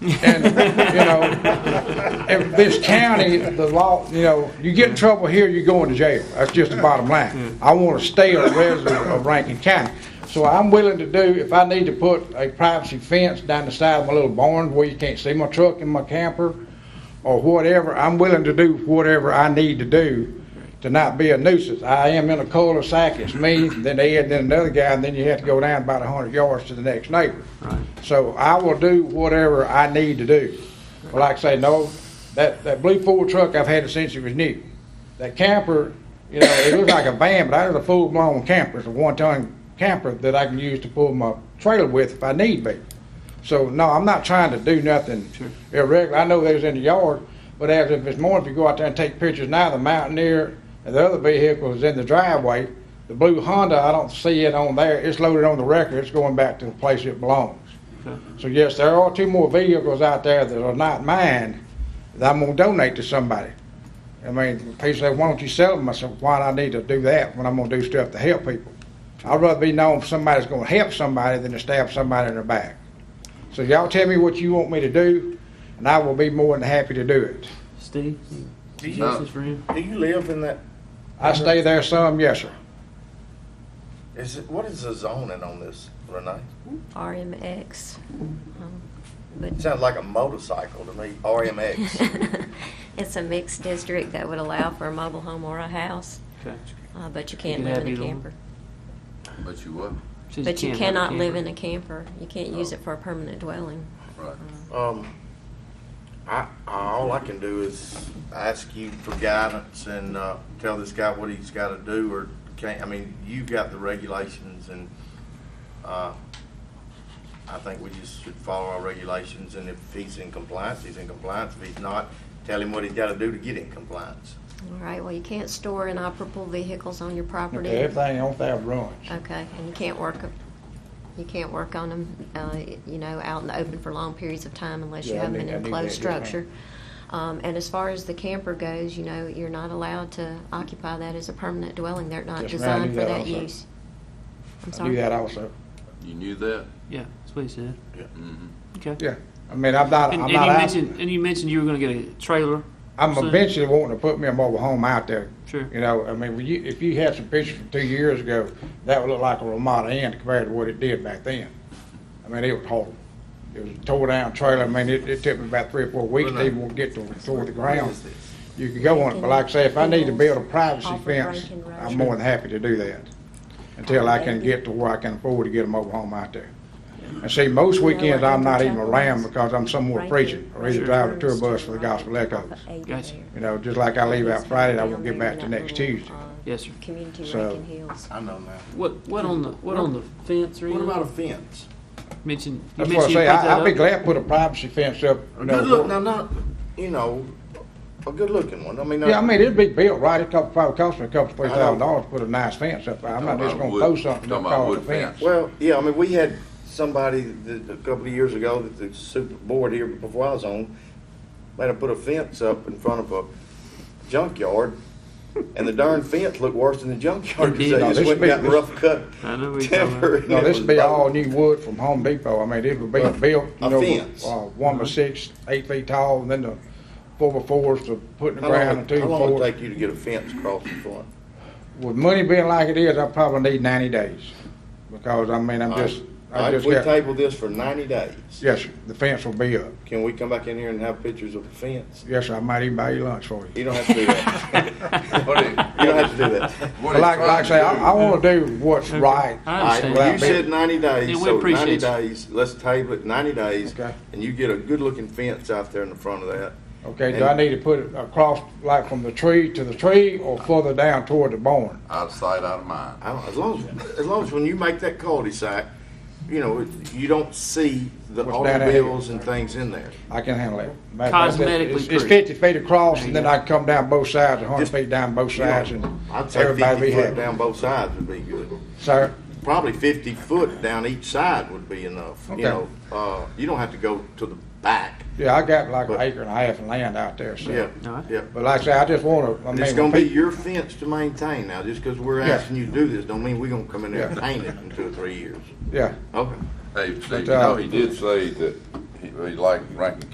And, you know, if this county, the law, you know, you get in trouble here, you're going to jail. That's just the bottom line. I want to stay a resident of Rankin County. So I'm willing to do, if I need to put a privacy fence down the side of my little barn where you can't see my truck and my camper or whatever, I'm willing to do whatever I need to do to not be a nuisance. I am in a cul-de-sac, it's me, then Ed, then another guy, and then you have to go down about a hundred yards to the next neighbor. So I will do whatever I need to do. But like I say, no, that, that blue Ford truck I've had it since it was new. That camper, you know, it looks like a van, but I was a full-blown camper. It's a one-ton camper that I can use to pull my trailer with if I need be. So, no, I'm not trying to do nothing irregular. I know those in the yard, but as if it's morning, if you go out there and take pictures now, the Mountaineer and the other vehicle is in the driveway. The blue Honda, I don't see it on there. It's loaded on the record. It's going back to the place it belongs. So yes, there are two more vehicles out there that are not mine that I'm gonna donate to somebody. I mean, people say, why don't you sell them? I said, why do I need to do that when I'm gonna do stuff to help people? I'd rather be known for somebody's gonna help somebody than to stab somebody in the back. So y'all tell me what you want me to do, and I will be more than happy to do it. Steve, Do you, justice for him. do you live in that? I stay there some, yes, sir. Is it what is the zoning on this, Renee? RMX. um, It but- sounds like a motorcycle to me. RMX. It's a mixed district that would allow for a mobile home or a house, Okay. uh, but you can't can live have in a either one. camper. But you what? Says But you can't have a cannot live camper. Oh. in a camper. You can't use it for a permanent dwelling. Right. um, I, all I can do is ask you for guidance and uh, tell this guy what he's got to do or can't. I mean, you've got the regulations, and uh, I think we just should follow our regulations. And if he's in compliance, he's in compliance. If he's not, tell him what he's got to do to get in compliance. All right, well, you can't store inoperable vehicles on your property. Okay, everything on there runs. Okay, and you can't work, you can't work on them, uh, you know, out in the open for long periods of time unless you Yeah, I have them need- in I an need enclosed that, yes, structure. Um, and as far as the camper goes, you know, you're not allowed to occupy that as a permanent dwelling. They're not Yes, ma'am, I designed knew for that that also. use. I'm I do that sorry. also. You knew that? Yeah, that's what he said. Mm-hmm. Okay. Yeah, I mean, I'm not, And, I'm and not you out. mentioned and you mentioned you were going to get a trailer. I'm soon. eventually wanting to put me a mobile home out there. Sure. You know, I mean, when you, if you had some pictures from two years ago, that would look like a Ramada Inn compared to what it did back then. I mean, it was horrible. It was a tore down trailer. I mean, it, it took me about three or four weeks uh, to even get to, toward the ground. You could go on it, but like I say, if I need to build a privacy Off of fence, Rankin Road. I'm more than happy to do that. Until I can get to where I can afford to get a mobile home out there. And see, most weekends, I'm not even around because I'm somewhere preaching, or either driving a tour bus for the Gospel Echoes. Gotcha. You know, just like I leave out Friday, I won't get back to next Tuesday. Yes, sir. uh, Community So- Rankin Hills. I know now. What what on the what on the fence or What anything? about a fence? mentioned? You That's what I mentioned say, you put that I, I'd be up? glad to put a privacy fence up, A you good look, now know. not, you know, a good looking one. I mean, Yeah, I mean, it'd be built right, it cost, probably cost me a couple, three I know. thousand dollars to put a nice fence up. I'm not just gonna throw something that Talking about costs a wood fence. fence. Well, yeah, I mean, we had somebody that, a couple of years ago that the super board here before I was on, made them put a fence up in front of a junkyard. And the darn fence looked worse than the junkyard. It did. They No, just this went and got big- rough cut I know what you're talking timber. about. and No, it this was would be bad. all new wood from Home Depot. I mean, it would be Right. built, A you know, fence. uh, one by six, eight feet tall, and then the four by fours to put in the How long, ground and would- two how by long would it fours. take you to get a fence across the front? With money being like it is, I probably need ninety days, because I mean, I'm just, All I right, just if we got, table this for ninety days, yes, sir, the fence will be up. can we come back in here and have pictures of the fence? Yes, sir, I might even buy you lunch for you. You don't have to do that. You don't have to do that. What But he's like, like I trying say, to I, I wanna do what's Okay. right. I All right, understand. well, you Without said ninety Yeah, days, we so ninety appreciate you. days, let's table it ninety days. Okay. And you get a good-looking fence out there in the front of that. Okay, do I need to put it across, like from the tree to the tree, or further down toward the barn? Out of sight, out of mind. I don't, as long as, as long as when you make that cul-de-sac, you know, it- you don't see the What's down that automobiles and things in there. I can handle it. Matter of fact, Cosmetically it's- It's pretty. fifty feet across, There and you then go. I can come down both sides, a hundred Just- feet down both You know, sides, and I'd say everybody be fifty foot happy. down both sides would be good. Sir, Probably fifty foot down each side would be enough, you Okay. know, uh, you don't have to go to the back. yeah, I got like an But- acre and a half of land out there, Yeah, so. All right. yeah. But like I say, I just wanna, I mean. It's when gonna be peop- your fence to maintain now, just because we're Yeah. asking you to do this, don't mean we gonna come in there and Yeah. paint it in two or three years. Yeah, Okay. Hey, Steve, you uh, know, he did say that he- he like Rankin